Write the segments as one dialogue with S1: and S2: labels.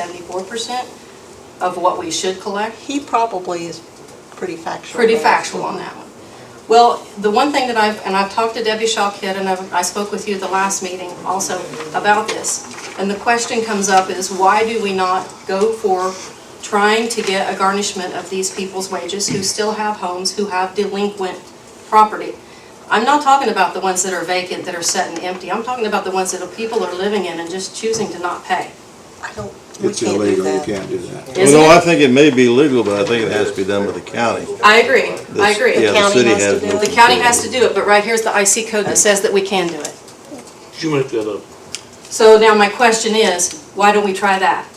S1: seventy-four percent of what we should collect.
S2: He probably is pretty factual.
S1: Pretty
S2: there.
S1: factual on that one. Well, the one thing that I've, and I've talked to Debbie Shawkid, and I've, I spoke with you at the last meeting also about this. And the question comes up is why do we not go for trying to get a garnishment of these people's wages who still have homes, who have delinquent property? I'm not talking about the ones that are vacant, that are set and empty. I'm talking about the ones that people are living in and just choosing to not pay.
S2: I don't, we
S3: It's
S2: can't do
S3: illegal, you
S2: that.
S3: can't do that.
S1: Isn't
S4: Well, no, I
S1: it?
S4: think it may be legal, but I think it has to be done by the county.
S1: I agree, I
S4: The-
S1: agree.
S4: Yeah, the
S2: county
S4: city
S2: has to
S4: has
S2: do
S4: no
S2: it.
S1: The county has to do it, but right here's the IC code that says that we can do it.
S5: You make that up.
S1: So now my question is, why don't we try that?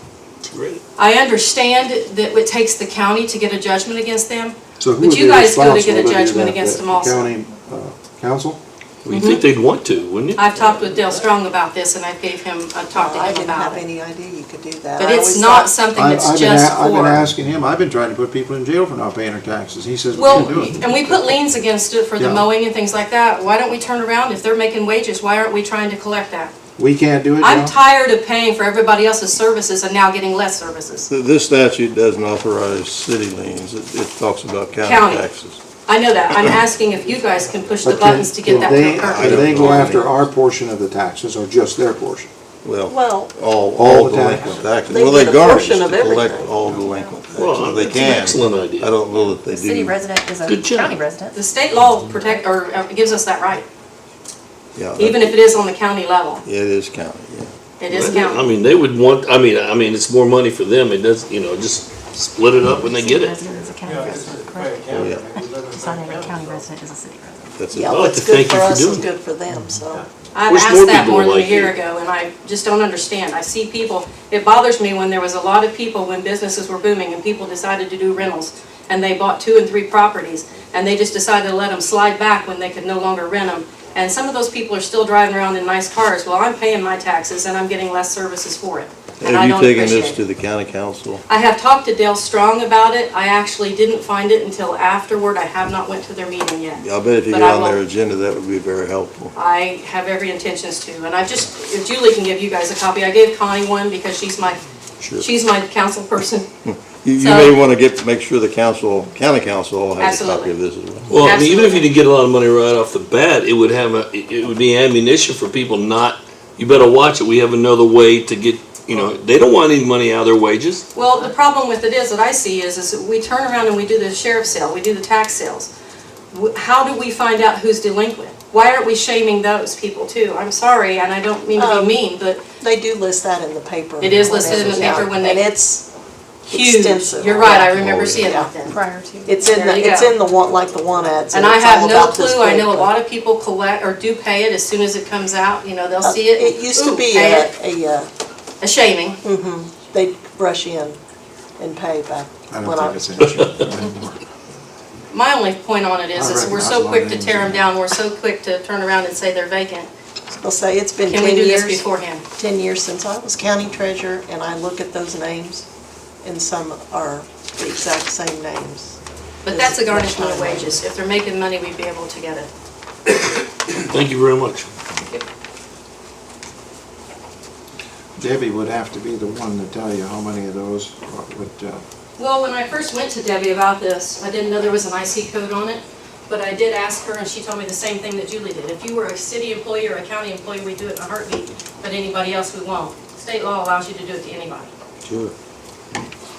S5: Great.
S1: I understand that it takes the county to get a judgment against them.
S3: So who
S1: Would
S3: would
S1: you
S3: be
S1: guys go to get a
S3: responsible do
S1: judgment
S3: that?
S1: against
S3: The
S1: them also?
S3: County, uh, council?
S5: Well, you'd think they'd want to, wouldn't you?
S1: I've talked with Dale Strong about this and I gave him, I talked to
S2: I
S1: him
S2: didn't have
S1: about it.
S2: any idea you could do that.
S1: But
S2: I
S1: it's
S2: always
S1: not
S2: thought-
S1: something
S3: I- I've
S1: that's
S3: been a-
S1: just
S3: I've been
S1: for.
S3: asking him, I've been trying to put people in jail for not paying their taxes, he says we
S1: Well,
S3: can do it.
S1: and we put liens against it for the
S3: Yeah.
S1: mowing and things like that. Why don't we turn around? If they're making wages, why aren't we trying to collect that?
S3: We can't do it
S1: I'm
S3: now?
S1: tired of paying for everybody else's services and now getting less services.
S4: Th- This statute doesn't authorize city liens, it, it talks about
S1: County.
S4: county taxes.
S1: I know that. I'm asking if you guys can push the
S3: But can-
S1: buttons to get
S3: can
S1: that
S3: they-
S1: to occur.
S4: I
S3: Can they
S4: don't
S3: go
S4: know.
S3: after our portion of the taxes or just their portion?
S4: Well,
S2: Well-
S4: all,
S3: All
S4: all
S3: the
S4: delinquent taxes,
S2: They
S4: well, they
S2: get a
S4: garnish
S2: portion
S4: to
S2: of
S4: collect
S2: everything.
S4: all delinquent taxes,
S5: Well,
S4: if they
S5: that's an
S4: can.
S5: excellent idea.
S4: I don't know that they
S6: City
S4: do.
S6: resident is a
S5: Good job.
S6: county
S1: The
S6: resident.
S1: state law protect, or uh, gives us that right,
S4: Yeah, that-
S1: even if it is on the county level.
S4: It is county, yeah.
S1: It is
S5: I
S1: county.
S5: mean, they would want, I mean, I mean, it's more money for them. It does, you know, just split it up when they get
S6: City
S5: it.
S6: resident is a county
S7: Yeah, it's a
S6: resident,
S7: great
S6: correct?
S7: county.
S4: Yeah.
S7: We live in
S6: So not every
S7: Franklin.
S6: county resident is a city resident.
S4: That's
S2: Yeah,
S4: it.
S5: I'd like
S2: what's
S5: to
S2: good
S5: thank you
S2: for
S5: for
S2: us is
S5: doing
S2: good for them, so.
S1: I've
S5: Wish more
S1: asked that
S5: people
S1: more than a
S5: like
S1: year
S5: you.
S1: ago, and I just don't understand. I see people, it bothers me when there was a lot of people, when businesses were booming, and people decided to do rentals, and they bought two and three properties, and they just decided to let them slide back when they could no longer rent them. And some of those people are still driving around in nice cars. Well, I'm paying my taxes, and I'm getting less services for it. And I
S4: Have you
S1: don't
S4: taken
S1: appreciate
S4: this
S1: it.
S4: to the county council?
S1: I have talked to Dale Strong about it. I actually didn't find it until afterward. I have not went to their meeting yet.
S4: I bet if you
S1: But
S4: get
S1: I
S4: on their
S1: will.
S4: agenda, that would be very helpful.
S1: I have every intentions to, and I just, if Julie can give you guys a copy. I gave Connie one because she's my,
S4: Sure.
S1: she's my council person.
S4: You, you
S1: So-
S4: may wanna get, make sure the council, county council all has a
S1: Absolutely.
S4: copy of this as well.
S5: Well, I mean, even if
S1: Absolutely.
S5: you didn't get a lot of money right off the bat, it would have, a it it would be ammunition for people not, you better watch it. We have another way to get, you know, they don't want any money out of their wages.
S1: Well, the problem with it is, that I see is, is we turn around and we do the sheriff sale, we do the tax sales. Wh- How do we find out who's delinquent? Why aren't we shaming those people too? I'm sorry, and I don't mean to be
S2: Um,
S1: mean, but
S2: They do list that in the paper.
S1: It is listed in the
S2: when it-
S1: paper when they-
S2: And it's
S1: huge.
S2: extensive.
S1: You're right, I
S4: Oh,
S1: remember seeing
S2: Yeah.
S1: that then.
S6: Prior to.
S2: It's in
S1: There you
S2: the, it's
S1: go.
S2: in the one, like the one ads.
S1: And I
S2: it's all
S1: have no
S2: about this
S1: clue, I know a
S2: paper.
S1: lot of people collect, or do pay it as soon as it comes out, you know, they'll
S2: Uh,
S1: see it.
S2: It used to
S1: ooh,
S2: be
S1: pay
S2: a, Mm.
S1: it.
S2: a, uh,
S1: A shaming,
S2: they'd brush in and pay back.
S3: I
S2: when
S3: don't think it's an issue anymore.
S1: my only point on it is,
S3: I
S1: is we're
S3: recognize a
S1: so
S3: lot
S1: quick
S3: of
S1: to
S3: names
S1: tear them
S3: in there.
S1: down, we're so quick to turn around and say they're vacant.
S2: I'll say, it's been
S1: Can
S2: ten
S1: we do
S2: years.
S1: this beforehand?
S2: 10 years since I was county treasurer, and I look at those names, and some are the exact same names.
S1: But
S2: Is
S1: that's a
S2: it
S1: garnishment of
S2: much higher?
S1: wages, if they're making money, we'd be able to get it.
S5: Thank you very much.
S3: Debbie would have to be the one to tell you how many of those would, uh,
S1: Well, when I first went to Debbie about this, I didn't know there was an IC code on it, but I did ask her, and she told me the same thing that Julie did. If you were a city employee or a county employee, we'd do it in a heartbeat, but anybody else, we won't. State law allows you to do it to anybody.
S4: Sure.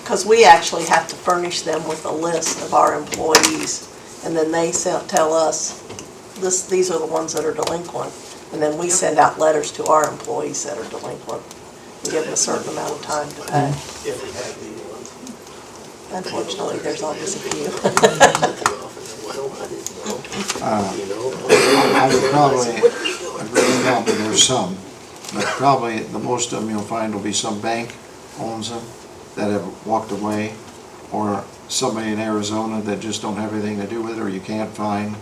S2: Because we actually have to furnish them with a list of our employees, and then they se- tell us, this, these are the ones that are delinquent. And then we send out letters to our employees that are delinquent, and give them a certain amount of time to pay. Unfortunately, there's always a few.
S3: I would probably, I'd really help if there's some, but probably the most of them you'll find will be some bank owns them that have walked away, or somebody in Arizona that just don't have anything to do with it, or you can't find,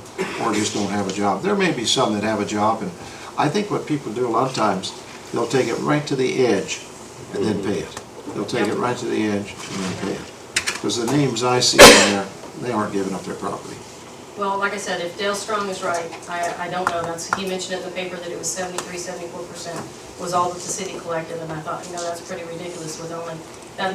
S3: or just don't have a job. There may be some that have a job, and I think what people do a lot of times, they'll take it right to the edge and then pay it. They'll take it right to the edge and then pay it. Because the names I see in there, they aren't giving up their property.
S1: Well, like I said, if Dale Strong is right, I, I don't know, that's, he mentioned in the paper that it was 73, 74 percent was all that the city collected, and I thought, you know, that's pretty ridiculous with only, that